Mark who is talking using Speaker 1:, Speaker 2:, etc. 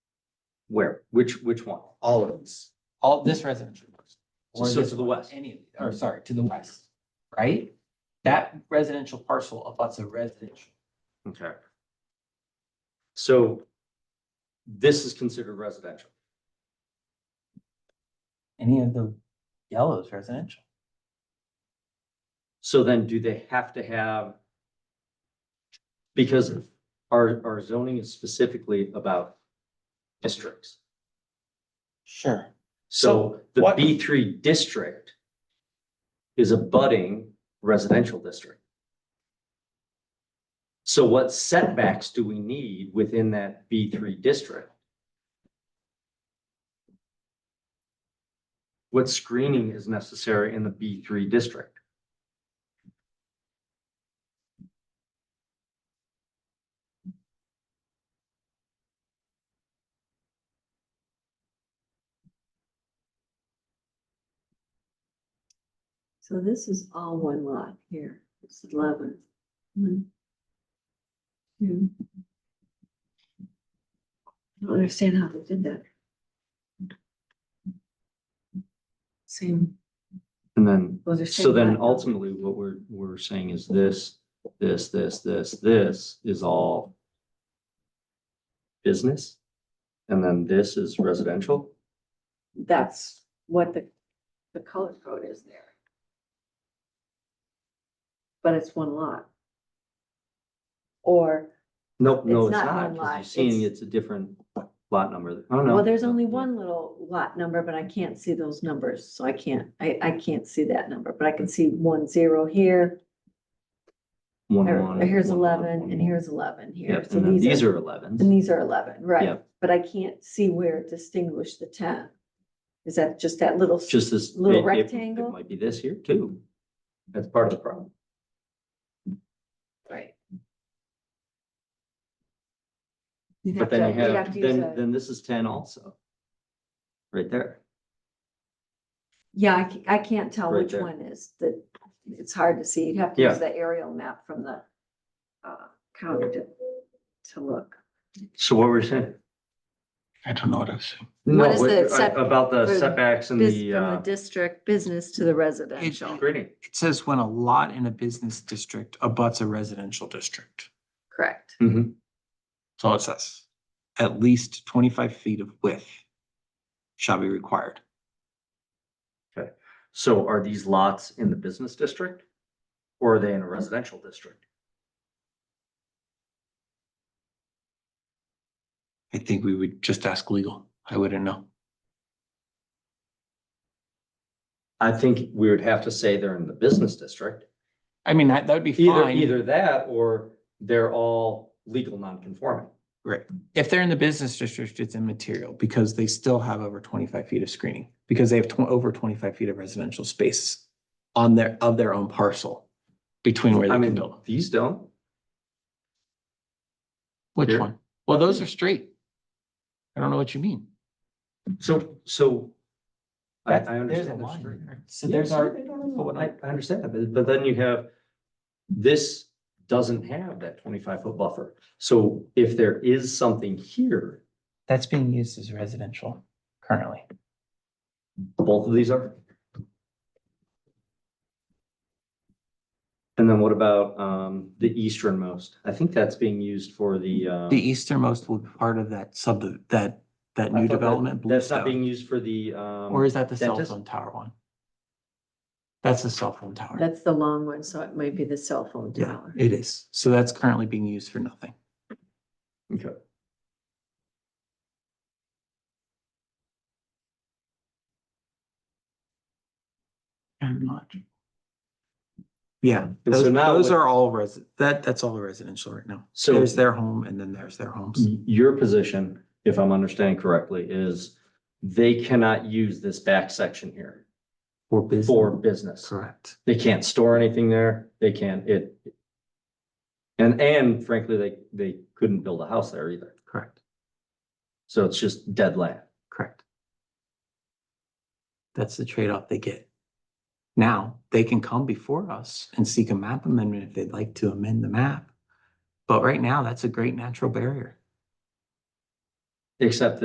Speaker 1: Where? Which, which one?
Speaker 2: all of these, all this residential.
Speaker 1: So-
Speaker 2: or
Speaker 1: so
Speaker 2: this
Speaker 1: to the
Speaker 2: one,
Speaker 1: west.
Speaker 2: Any of, the- or sorry, to the west, right? That residential parcel abuts a residential.
Speaker 1: Okay. So this is considered residential.
Speaker 2: Any of the yellows residential.
Speaker 1: So then do they have to have? Because our, our zoning is specifically about districts.
Speaker 2: Sure.
Speaker 1: So the
Speaker 3: what-
Speaker 1: B three district is a budding residential district. So what setbacks do we need within that B three district? What screening is necessary in the B three district?
Speaker 4: So this is all one lot here. It's eleven. One, two. I don't understand how they did that. Same,
Speaker 1: And then
Speaker 4: those are.
Speaker 1: So then
Speaker 4: ultimately.
Speaker 1: ultimately, what we're, we're saying is this, this, this, this, this is all business, and then this is residential?
Speaker 4: That's what the, the color code is there. But it's one lot. Or,
Speaker 1: Nope, no,
Speaker 4: It's
Speaker 1: it's
Speaker 4: not
Speaker 1: not,
Speaker 4: one
Speaker 1: because you're
Speaker 4: lot,
Speaker 1: seeing
Speaker 4: it's-
Speaker 1: it's a different lot number. Oh, no.
Speaker 4: well, there's only one little lot number, but I can't see those numbers, so I can't, I, I can't see that number, but I can see one zero here.
Speaker 1: One,
Speaker 4: or-
Speaker 1: one,
Speaker 4: or here's
Speaker 1: one, one,
Speaker 4: eleven,
Speaker 1: one,
Speaker 4: and
Speaker 1: one.
Speaker 4: here's eleven here,
Speaker 1: Yep,
Speaker 4: so
Speaker 1: and then
Speaker 4: these
Speaker 1: these
Speaker 4: are,
Speaker 1: are elevens.
Speaker 4: and these are eleven, right?
Speaker 1: Yep.
Speaker 4: But I can't see where it distinguished the ten. Is that just that little?
Speaker 1: It's Just this.
Speaker 4: Little
Speaker 1: it- it-
Speaker 4: rectangle.
Speaker 1: It might be this here too. That's part of the problem.
Speaker 4: Right.
Speaker 1: But then you have, then, then this is ten also. Right there.
Speaker 4: Yeah, I, ca- I can't tell
Speaker 1: Right
Speaker 4: which
Speaker 1: there.
Speaker 4: one is the, it's hard to see. You'd have to
Speaker 1: Yeah.
Speaker 4: use the aerial map from the uh, counter to, to look.
Speaker 1: So what we're saying,
Speaker 3: I don't know what I was saying.
Speaker 1: No,
Speaker 4: What is
Speaker 1: what-
Speaker 4: the set-
Speaker 1: uh, about the
Speaker 4: for the
Speaker 1: setbacks and
Speaker 4: Bus-
Speaker 1: the,
Speaker 4: From the
Speaker 1: uh,
Speaker 4: district business to the residential,
Speaker 1: screening.
Speaker 3: It says when a lot in a business district abuts a residential district.
Speaker 4: correct?
Speaker 1: Mhm.
Speaker 3: That's all it says. At least twenty-five feet of width shall be required.
Speaker 1: So are these lots in the business district? Or are they in a residential district?
Speaker 3: I think we would just ask legal. I wouldn't know.
Speaker 1: I think we would have to say they're in the business district.
Speaker 3: I mean, that, that'd be
Speaker 1: Either,
Speaker 3: fine.
Speaker 1: either that or they're all legal non-conforming.
Speaker 3: If they're in the business district, it's immaterial because they still have over twenty-five feet of screening. Because they have tw- over twenty-five feet of residential space on their, of their own parcel between where
Speaker 1: I
Speaker 3: they can
Speaker 1: mean,
Speaker 3: build.
Speaker 1: these don't.
Speaker 3: Which
Speaker 1: Here.
Speaker 3: one? Well, those are straight. I don't know what you mean.
Speaker 1: So, so. I, I understand. they're straight.
Speaker 3: So
Speaker 1: Yeah,
Speaker 3: there's
Speaker 1: so
Speaker 3: our,
Speaker 1: they don't know. I, I understand that, but, but then you have, this doesn't have that twenty-five foot buffer. So if there is something here,
Speaker 3: that's being used as residential currently.
Speaker 1: both of these are. And then what about, um, the easternmost? I think that's being used for the, uh.
Speaker 3: The easternmost will be part of that sub, that, that
Speaker 1: I thought
Speaker 3: new
Speaker 1: that-
Speaker 3: development.
Speaker 1: That's not
Speaker 3: Bluestone.
Speaker 1: being used for the, um.
Speaker 3: Or is that the cell
Speaker 1: dentist?
Speaker 3: phone tower one? That's the cell phone tower.
Speaker 4: That's the long one, so it might be the cell phone
Speaker 3: Yeah,
Speaker 4: tower.
Speaker 3: it is. So that's currently being used for nothing.
Speaker 1: Okay.
Speaker 3: And not. Yeah,
Speaker 1: And so
Speaker 3: those,
Speaker 1: now
Speaker 3: those
Speaker 1: with-
Speaker 3: are all res, that, that's all residential right now.
Speaker 1: So. Mm.
Speaker 3: There's their home and then there's their homes.
Speaker 1: Your position, if I'm understanding correctly, is they cannot use this back section here
Speaker 3: For business.
Speaker 1: for business.
Speaker 3: Correct.
Speaker 1: They can't store anything there. They can't, it. And, and frankly, they, they couldn't build a house there either.
Speaker 3: Correct.
Speaker 1: So it's just dead land.
Speaker 3: Correct. That's the trade-off they get. Now, they can come before us and seek a map amendment if they'd like to amend the map. But right now, that's a great natural barrier.
Speaker 1: Except